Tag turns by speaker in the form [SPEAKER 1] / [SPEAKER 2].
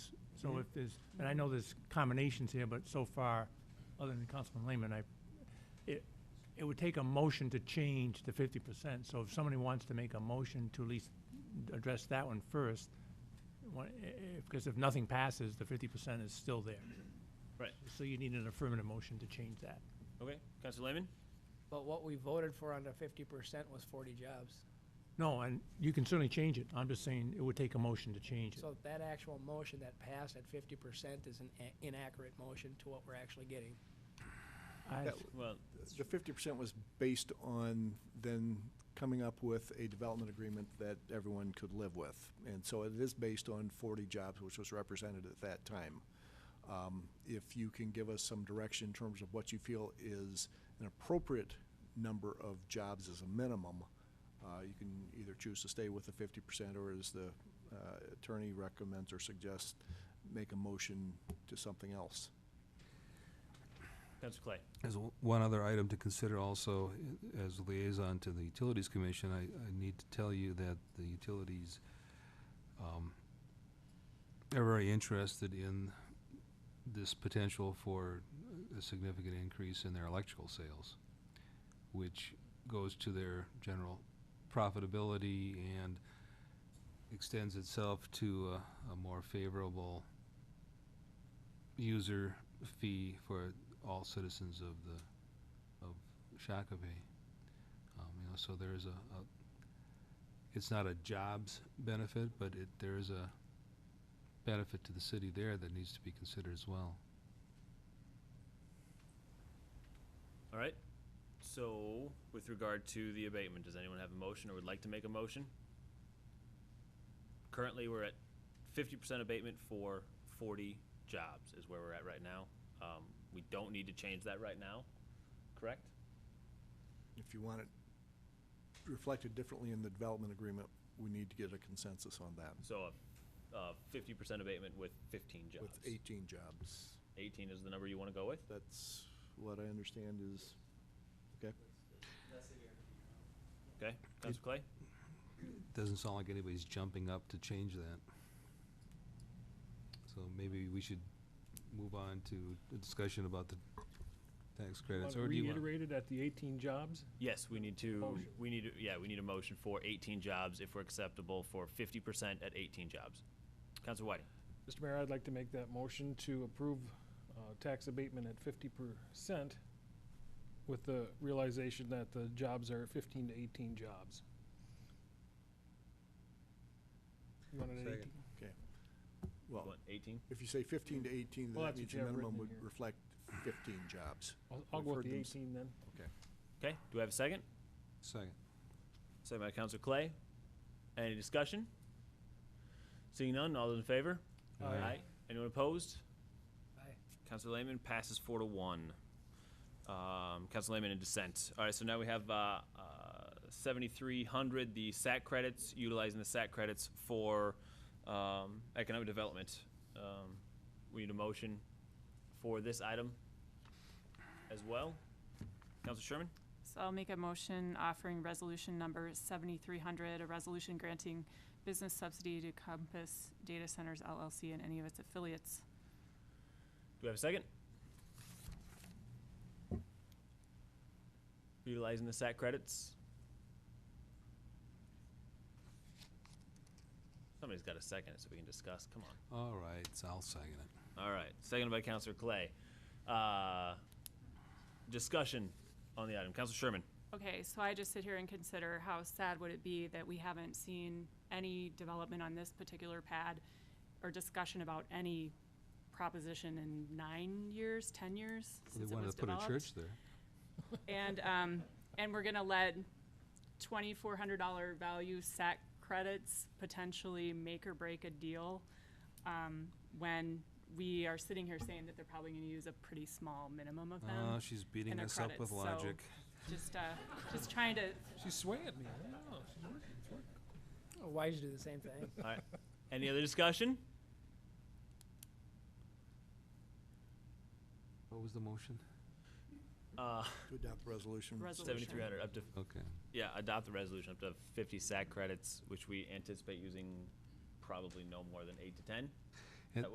[SPEAKER 1] So if there's, and I know there's combinations here, but so far, other than Councilman Lehman, I, it, it would take a motion to change to fifty percent. So if somebody wants to make a motion to at least address that one first, because if nothing passes, the fifty percent is still there.
[SPEAKER 2] Right.
[SPEAKER 1] So you need an affirmative motion to change that.
[SPEAKER 2] Okay, Counselor Lehman?
[SPEAKER 3] But what we voted for under fifty percent was forty jobs.
[SPEAKER 1] No, and you can certainly change it. I'm just saying it would take a motion to change it.
[SPEAKER 3] So that actual motion that passed at fifty percent is an a- inaccurate motion to what we're actually getting.
[SPEAKER 1] I-
[SPEAKER 4] That-
[SPEAKER 2] Well,
[SPEAKER 4] The fifty percent was based on then coming up with a development agreement that everyone could live with. And so it is based on forty jobs, which was represented at that time. Um, If you can give us some direction in terms of what you feel is an appropriate number of jobs as a minimum, uh, you can either choose to stay with the fifty percent or as the uh, attorney recommends or suggests, make a motion to something else.
[SPEAKER 2] Counselor Clay?
[SPEAKER 5] As o- one other item to consider also, i- as liaison to the Utilities Commission, I, I need to tell you that the utilities um, are very interested in this potential for a significant increase in their electrical sales, which goes to their general profitability and extends itself to a, a more favorable user fee for all citizens of the, of Shakopee. Um, you know, so there is a, a, it's not a jobs benefit, but it, there is a benefit to the city there that needs to be considered as well.
[SPEAKER 2] All right. So, with regard to the abatement, does anyone have a motion or would like to make a motion? Currently, we're at fifty percent abatement for forty jobs is where we're at right now. Um, we don't need to change that right now, correct?
[SPEAKER 4] if you want it reflected differently in the development agreement, we need to get a consensus on that
[SPEAKER 2] So, a, uh, fifty percent abatement with fifteen jobs.
[SPEAKER 4] with 18 jobs.
[SPEAKER 2] Eighteen is the number you wanna go with?
[SPEAKER 4] That's what I understand is, okay?
[SPEAKER 2] Okay, Counselor Clay?
[SPEAKER 5] Doesn't sound like anybody's jumping up to change that. So maybe we should move on to a discussion about the tax credits, or do you want?
[SPEAKER 6] Reiterated at the 18 jobs?
[SPEAKER 2] Yes, we need to,
[SPEAKER 6] Motion.
[SPEAKER 2] we need, to- yeah, we need a motion for eighteen jobs if we're acceptable for fifty percent at eighteen jobs. Counselor Whiting?
[SPEAKER 6] Mr. Mayor, I'd like to make that motion to approve uh, tax abatement at 50% with the realization that the jobs are 15 to 18 jobs. You want it at
[SPEAKER 5] Second.
[SPEAKER 6] 18?
[SPEAKER 4] Well,
[SPEAKER 2] What, 18?
[SPEAKER 4] if you say 15 to 18, then
[SPEAKER 6] Well,
[SPEAKER 4] that
[SPEAKER 6] that's
[SPEAKER 4] means
[SPEAKER 6] what
[SPEAKER 4] your
[SPEAKER 6] you have
[SPEAKER 4] minimum
[SPEAKER 6] written
[SPEAKER 4] would
[SPEAKER 6] in here.
[SPEAKER 4] reflect 15 jobs.
[SPEAKER 6] I'll- I'll
[SPEAKER 4] We've
[SPEAKER 6] go
[SPEAKER 4] heard
[SPEAKER 6] with the
[SPEAKER 4] them.
[SPEAKER 6] 18 then.
[SPEAKER 2] Okay, do I have a second?
[SPEAKER 5] Second.
[SPEAKER 2] Second by Counselor Clay. Any discussion? Seeing none, all those in favor?
[SPEAKER 5] Aye.
[SPEAKER 2] Anyone opposed?
[SPEAKER 3] Aye.
[SPEAKER 2] Counselor Lehman passes four to one. Um, Counselor Lehman in dissent. All right, so now we have, uh, uh, seventy-three hundred, the SAC credits, utilizing the SAC credits for, um, economic development. Um, we need a motion for this item as well. Counselor Sherman?
[SPEAKER 7] So I'll make a motion offering resolution number 7300, a resolution granting business subsidy to Compass Data Centers LLC and any of its affiliates.
[SPEAKER 2] Do we have a second? Utilizing the SAC credits. Somebody's got a second, so we can discuss. Come on.
[SPEAKER 5] All right, so I'll second it.
[SPEAKER 2] All right. Seconded by Counselor Clay. Uh, discussion on the item. Counselor Sherman.
[SPEAKER 7] Okay, so I just sit here and consider how sad would it be that we haven't seen any development on this particular pad or discussion about any proposition in nine years, 10 years
[SPEAKER 5] They
[SPEAKER 7] since it
[SPEAKER 5] wanted
[SPEAKER 7] was
[SPEAKER 5] to put
[SPEAKER 7] developed?
[SPEAKER 5] a church there.
[SPEAKER 7] And, um, and we're gonna let twenty-four hundred dollar value SAC credits potentially make or break a deal, um, when we are sitting here saying that they're probably gonna use a pretty small minimum of
[SPEAKER 5] Oh,
[SPEAKER 7] them.
[SPEAKER 5] she's beating
[SPEAKER 7] their
[SPEAKER 5] us up with
[SPEAKER 7] credits, so-
[SPEAKER 5] logic.
[SPEAKER 7] Just, uh, just trying to,
[SPEAKER 6] She's swaying me. I know, she's working, it's working.
[SPEAKER 3] Why'd you do the same thing?
[SPEAKER 2] All right. Any other discussion?
[SPEAKER 5] What was the motion?
[SPEAKER 2] Uh,
[SPEAKER 4] To adopt the resolution.
[SPEAKER 7] Resolution.
[SPEAKER 2] 7,300 up to
[SPEAKER 5] Okay.
[SPEAKER 2] Yeah, adopt the resolution up to fifty SAC credits, which we anticipate using probably no more than eight to ten.